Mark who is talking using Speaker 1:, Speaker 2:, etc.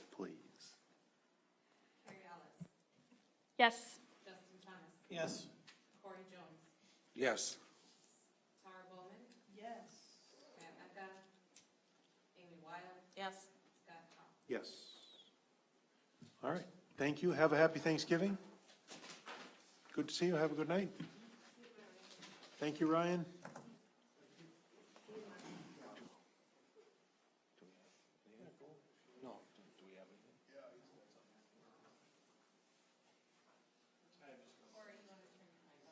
Speaker 1: Yes.
Speaker 2: Justin Thomas,
Speaker 3: Yes.
Speaker 2: Corey Jones,
Speaker 4: Yes.
Speaker 2: Tara Bowman,
Speaker 3: Yes.
Speaker 2: Matt Mecca, Amy Wild,
Speaker 1: Yes.
Speaker 2: Scott Powell.
Speaker 3: Yes. All right, thank you. Have a happy Thanksgiving. Good to see you. Have a good night. Thank you, Ryan.
Speaker 4: No.